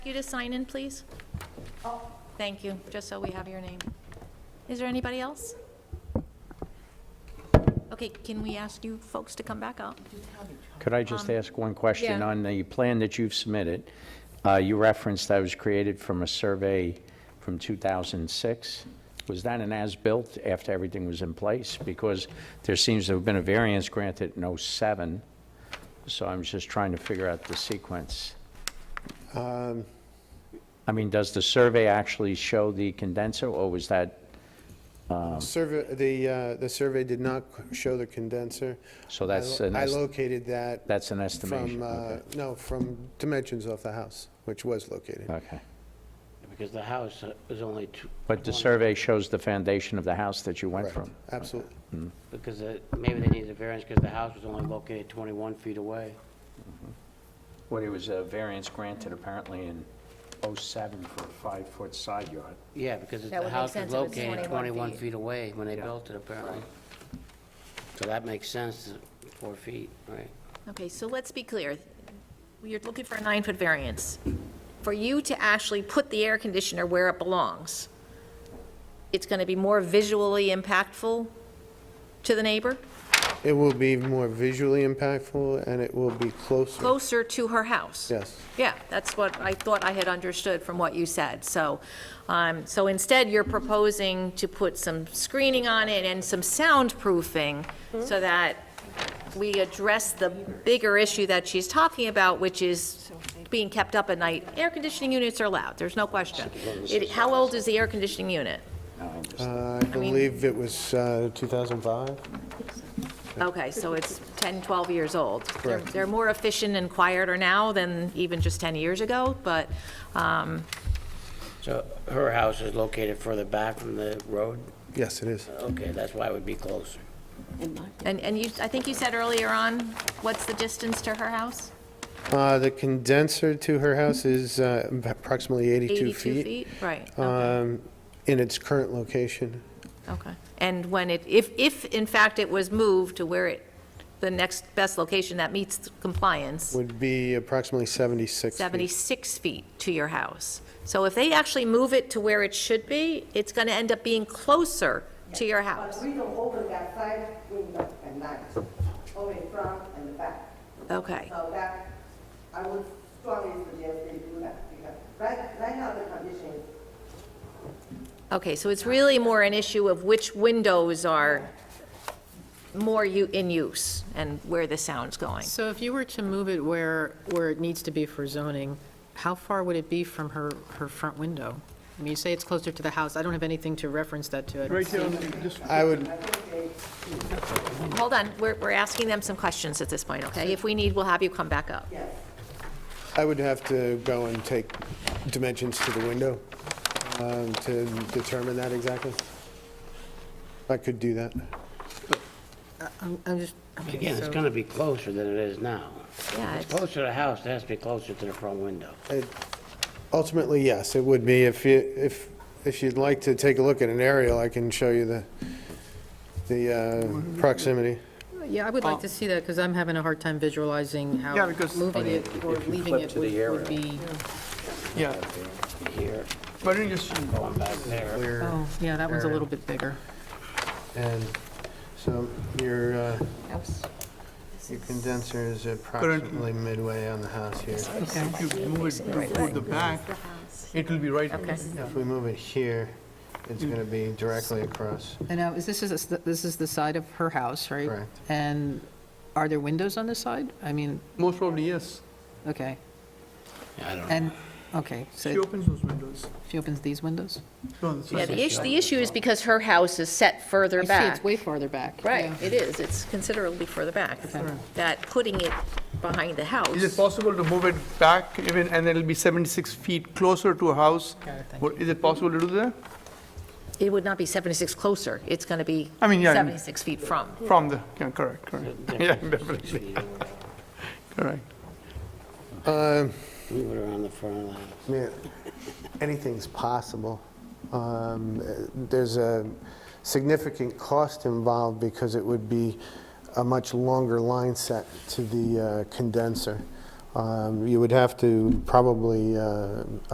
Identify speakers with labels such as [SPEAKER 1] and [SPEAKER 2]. [SPEAKER 1] you to sign in, please? Oh, Thank you, just so we have your name. Is there anybody else? Okay, can we ask you folks to come back up?
[SPEAKER 2] Could I just ask one question
[SPEAKER 1] yeah.
[SPEAKER 2] on the plan that you've submitted? uh, You referenced that was created from a survey from 2006. Was that an as-built after everything was in place? Because there seems to have been a variance granted in '07, so I'm just trying to figure out the sequence.
[SPEAKER 3] Um,
[SPEAKER 2] I mean, does the survey actually show the condenser, or was that,
[SPEAKER 3] Survey, the, uh, the survey did not show the condenser.
[SPEAKER 2] so that's,
[SPEAKER 3] I lo-
[SPEAKER 2] an
[SPEAKER 3] I
[SPEAKER 2] est-
[SPEAKER 3] located that
[SPEAKER 2] that's an
[SPEAKER 3] from,
[SPEAKER 2] estimation?
[SPEAKER 3] uh,
[SPEAKER 2] Okay.
[SPEAKER 3] no, from dimensions of the house, which was located.
[SPEAKER 2] Okay.
[SPEAKER 4] Because the house is only two.
[SPEAKER 2] But the
[SPEAKER 4] one-
[SPEAKER 2] survey shows the foundation of the house that you went
[SPEAKER 3] Correct.
[SPEAKER 2] from?
[SPEAKER 3] Absolutely.
[SPEAKER 4] Because uh, maybe they needed a variance because the house was only located 21 feet away.
[SPEAKER 2] Well, it was a variance granted apparently in '07 for a five-foot side yard.
[SPEAKER 4] Yeah, because
[SPEAKER 5] That
[SPEAKER 4] the
[SPEAKER 5] would make
[SPEAKER 4] house was
[SPEAKER 5] sense if it's
[SPEAKER 4] located
[SPEAKER 5] 21
[SPEAKER 4] 21
[SPEAKER 5] feet.
[SPEAKER 4] feet away when they built it apparently. So that makes sense, four feet, right?
[SPEAKER 1] Okay, so let's be clear. You're looking for a nine-foot variance. For you to actually put the air conditioner where it belongs, it's going to be more visually impactful to the neighbor,
[SPEAKER 3] It will be more visually impactful, and it will be closer.
[SPEAKER 1] closer to her house.
[SPEAKER 3] Yes.
[SPEAKER 1] Yeah, that's what I thought I had understood from what you said. So, um, so instead, you're proposing to put some screening on it and some soundproofing so that we address the bigger issue that she's talking about, which is being kept up at night. Air conditioning units are loud, there's no question. It- How old is the air conditioning unit?
[SPEAKER 3] Uh, I believe it was uh, 2005?
[SPEAKER 1] Okay, so it's 10, 12 years old. They're- They're more efficient and quieter now than even just 10 years ago, but, um,
[SPEAKER 4] So her house is located further back from the road?
[SPEAKER 3] Yes, it is.
[SPEAKER 4] Okay, that's why it would be closer.
[SPEAKER 1] And, and you, I think you said earlier on, what's the distance to her house?
[SPEAKER 3] Uh, The condenser to her house is uh, approximately 82 feet.
[SPEAKER 1] Right, okay,
[SPEAKER 3] um, In its current location.
[SPEAKER 1] okay. And when it, if, if in fact it was moved to where it, the next best location that meets compliance,
[SPEAKER 3] would be approximately 76 feet.
[SPEAKER 1] 76 feet to your house. So if they actually move it to where it should be, it's going to end up being closer to your
[SPEAKER 6] But
[SPEAKER 1] house.
[SPEAKER 6] we don't open that side window at night, only front and the back.
[SPEAKER 1] Okay,
[SPEAKER 6] So that, I would strongly suggest they do that, because right, right now the condition is
[SPEAKER 1] okay, so it's really more an issue of which windows are more u- in use and where the sound's going.
[SPEAKER 5] So if you were to move it where, where it needs to be for zoning, how far would it be from her, her front window? I mean, you say it's closer to the house, I don't have anything to reference that to. I don't see-
[SPEAKER 3] I would,
[SPEAKER 1] Hold on, we're, we're asking them some questions at this point, okay? If we need, we'll have you come back up.
[SPEAKER 3] I would have to go and take dimensions to the window um, to determine that exactly. I could do that.
[SPEAKER 5] um, I'm, I'm just, okay,
[SPEAKER 4] Again, it's
[SPEAKER 5] so,
[SPEAKER 4] going to be closer than it is now.
[SPEAKER 1] Yeah,
[SPEAKER 4] It's
[SPEAKER 1] it's-
[SPEAKER 4] closer to the house, it has to be closer to the front window.
[SPEAKER 3] It- Ultimately, yes, it would be. If you, if, if you'd like to take a look at an aerial, I can show you the, the uh, proximity.
[SPEAKER 5] yeah, I would like to see that, because I'm having a hard time visualizing how
[SPEAKER 7] Yeah, because-
[SPEAKER 5] moving it or leaving
[SPEAKER 2] flip
[SPEAKER 5] it
[SPEAKER 2] to
[SPEAKER 5] would
[SPEAKER 2] the
[SPEAKER 5] would be.
[SPEAKER 7] Yeah. Why don't you just,
[SPEAKER 4] Going back there,
[SPEAKER 5] Oh, yeah, that one's a little bit bigger.
[SPEAKER 3] And so your, uh, your condenser is approximately midway on the house here.
[SPEAKER 5] Okay,
[SPEAKER 7] if you move it to- toward the back, it'll be right.
[SPEAKER 5] okay.
[SPEAKER 3] If we move it here, it's going to be directly across.
[SPEAKER 5] And now, is this, is, this is the side of her house, right?
[SPEAKER 3] Correct.
[SPEAKER 5] And are there windows on this side? I mean,
[SPEAKER 7] Most probably, yes.
[SPEAKER 5] okay,
[SPEAKER 4] I don't know.
[SPEAKER 5] and, okay,
[SPEAKER 7] She
[SPEAKER 5] so
[SPEAKER 7] opens those windows.
[SPEAKER 5] she opens these windows?
[SPEAKER 7] No, that's
[SPEAKER 1] Yeah,
[SPEAKER 7] right.
[SPEAKER 1] the issue, the issue is because her house is set further
[SPEAKER 5] I see,
[SPEAKER 1] back.
[SPEAKER 5] it's way farther back.
[SPEAKER 1] Right,
[SPEAKER 5] yeah.
[SPEAKER 1] it is, it's considerably further back. That putting it behind the
[SPEAKER 7] Is it
[SPEAKER 1] house,
[SPEAKER 7] possible to move it back even, and it'll be 76 feet closer to a house? What- Is it possible to do that?
[SPEAKER 1] it would not be 76 closer, it's going to be
[SPEAKER 7] I mean, yeah, I mean-
[SPEAKER 1] 76 feet from.
[SPEAKER 7] From the, yeah, correct, correct. Yeah, definitely, correct.
[SPEAKER 3] Um,
[SPEAKER 4] Move it around the front of the house.
[SPEAKER 3] yeah, Anything's possible. Um, uh, There's a significant cost involved because it would be a much longer line set to the uh, condenser. Um, You would have to probably uh,